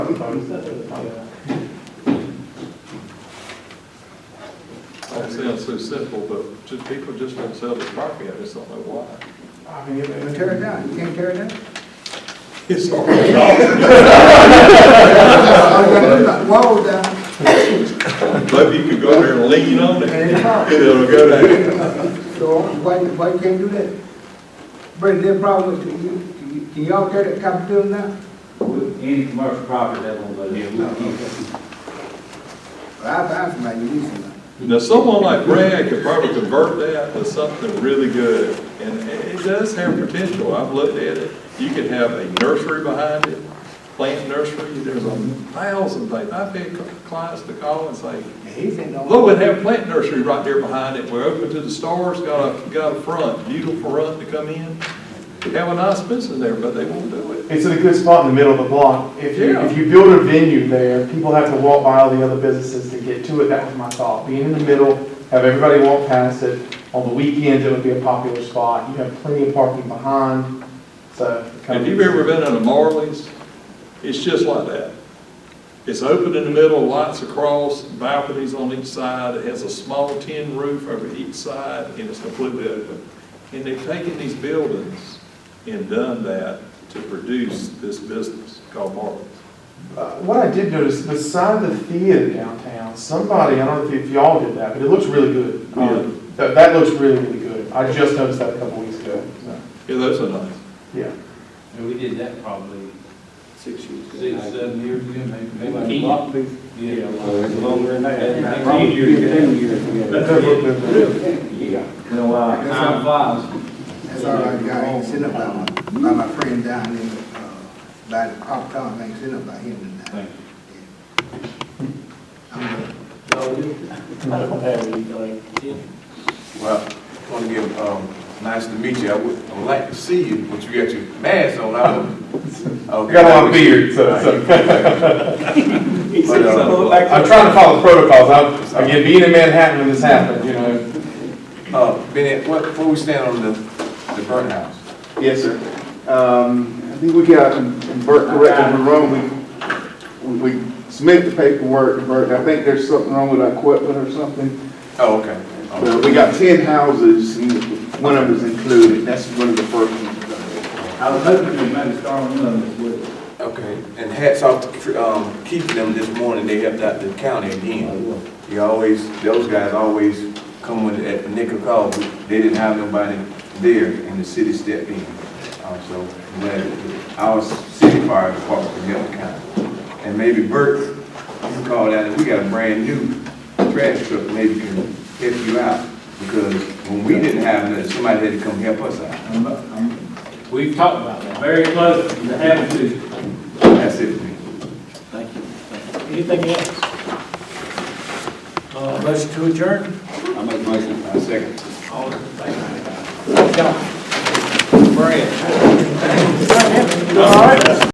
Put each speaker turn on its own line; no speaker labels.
That sounds so simple, but just, people just don't sell their property, I just don't know why.
I mean, if tear it down, you can't tear it down.
It's already gone.
Whoa, down,
Maybe you could go there and lean on it,
and it's hard.
it'll go down.
So why, why you can't do that? But their problem is, can you, can you- can y'all tear that Capitol now?
Any commercial property that won't go there, we'll keep it.
I found somebody, you need somebody.
Now, someone like Brad could probably convert that to something really good, and it it does have potential, I've looked at it. You could have a nursery behind it, plant nursery, there's a thousand things. I've had cl- clients to call and say,
He said no.
Look, we have a plant nursery right there behind it, we're open to the stars, got a, got a front, beautiful front to come in. Have a nice business there, but they won't do it.
It's in a good spot in the middle of the block. If you,
Yeah.
if you build a venue there, people have to walk by all the other businesses to get to it. That was my thought. Being in the middle, have everybody walk past it. On the weekends, it would be a popular spot. You have plenty of parking behind, so. it kind of-
If you've ever been in a Marley's, it's just like that. It's open in the middle, lights across, balconies on each side, it has a small tin roof over each side, and it's completely open. And they've taken these buildings and done that to produce this business called Marley's.
Uh, What I did notice, beside the theater downtown, somebody, I don't know if y'all did that, but it looks really good. Um,
Yeah.
That, that looks really, really good. I just noticed that a couple weeks ago, so,
Yeah, those are nice.
yeah.
And we did that probably
Six years.
six, seven years ago, maybe.
Like
maybe
block leaf.
Yeah.
Longer than that.
Probably a year ago.
Ten years ago. Yeah.
No, uh, time flies.
That's all right, guy, I ain't sitting up by my, by my friend down in, uh, by the Pop Town, I ain't sitting up by him tonight.
Thank
I'm good.
Well, I want to give, um, nice to meet you. I would, I would like to see you, but you got your mask on. I would- I would-
I got a long beard, so, so.
But, uh,
I'm trying to follow protocols. I'm, again, being in Manhattan when this happened, you know.
Uh, Benny, what, where we stand on the, the burnt house?
Yes, sir. Um, I think we got, and Bert corrected me wrong, we, we we submitted the paperwork to Bert, I think there's something wrong with our equipment or something.
Oh, okay. Oh,
But we got ten houses, and one of them's included, that's one of the first ones.
I was hoping to maybe start one of those with.
Okay, and hats off to, Tr- um, Keith and them this morning. They helped out the county again. He always, those guys always come when, at the nick of call. They didn't have nobody there and the city stepped in. Um, so, but our city fire department can help the county. And maybe Bert, you called out, and we got a brand new trash truck, maybe can help you out. Because when we didn't have nothing, somebody had to come help us out.
I'm not- I'm- We've talked about that, very close to having to.
That's it for me.
Thank you. Anything else? Uh, motion to adjourn?
I make a motion. I second.
All in favor? John? Brad?